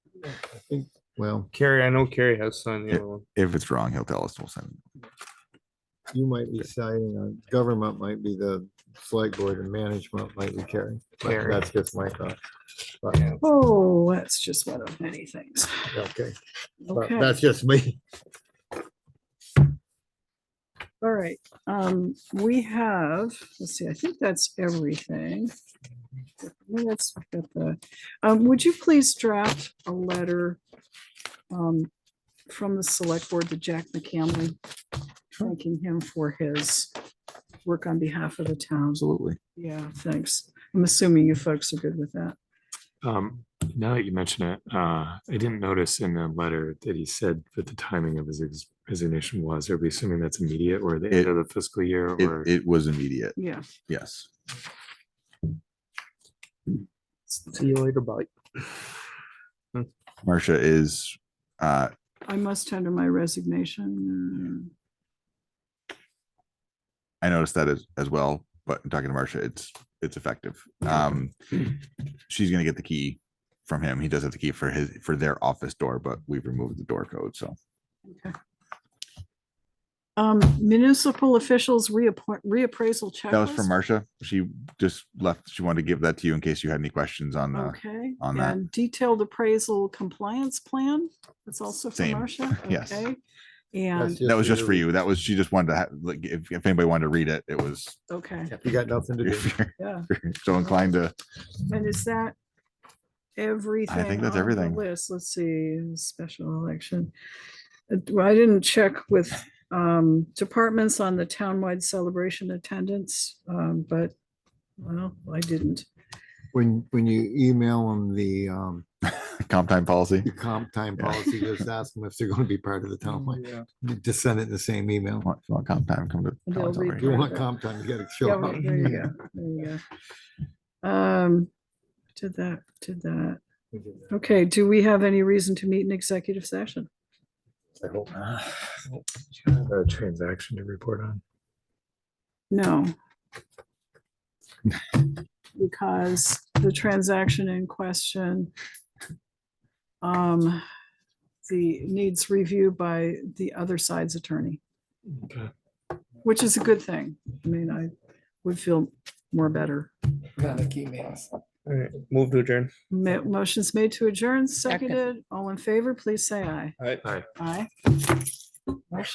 think Well, Carrie, I know Carrie has signed the Yeah. other one. If it's wrong, he'll tell us. We'll send him. you might be siding on, government might be the select board and management might be Carrie. But Carrie. That's just my thought. But, Yeah. Oh, that's just one of many things. okay, but Okay, that's just me. all right. Um, we have, let's see, I think that's everything. Let's get the, um, would you please draft a letter um, from the select board to Jack McCamley, thanking him for his work on behalf of the town. Absolutely. Yeah, thanks. I'm assuming you folks are good with that. Um, now that you mention it, uh, I didn't notice in the letter that he said that the timing of his ex- resignation was, are we assuming that's immediate or the It- end of the fiscal year or? It, it was immediate. Yeah. Yes. See you later, bye. Marcia is, uh, I must tender my resignation. uh, I noticed that as, as well, but talking to Marcia, it's, it's effective. Um, she's gonna get the key from him. He does have the key for his, for their office door, but we've removed the door code, so. Okay. Um, municipal officials reappoint, reappraisal checklist. That was from Marcia. She just left. She wanted to give that to you in case you had any questions on uh, the, Okay, on that. and detailed appraisal compliance plan, that's also from Same, Marcia. yes. okay. That's And, that was just for you. you. That was, she just wanted to, ha- like, if, if anybody wanted to read it, it was, okay, You got nothing to do. if you're yeah, so inclined to, and is that everything? that's on the everything. List, let's see, special election. Uh, well, I didn't check with, um, departments on the townwide celebration attendance, um, but, well, I didn't. When, when you email them the, um, comp time policy. the comp time Yeah. policy, just ask them if they're gonna be part of the town. plan. Just send it in the same email. Want, want comp time, come to. They'll Collins read If Elementary. you want comp time, you gotta Yeah, show up. right, There you go, there you go. Um, did that, did that. Okay, do we have any reason to meet in executive session? I hope not. Do you have Uh, A transaction to report on. No. Because the transaction in question um, the needs review by the other side's attorney, Okay. which is a good thing. I mean, I would feel more better. All right, move to adjourn. Ma- Motion's made to adjourn, seconded. All in favor, please say aye. All right. Aye.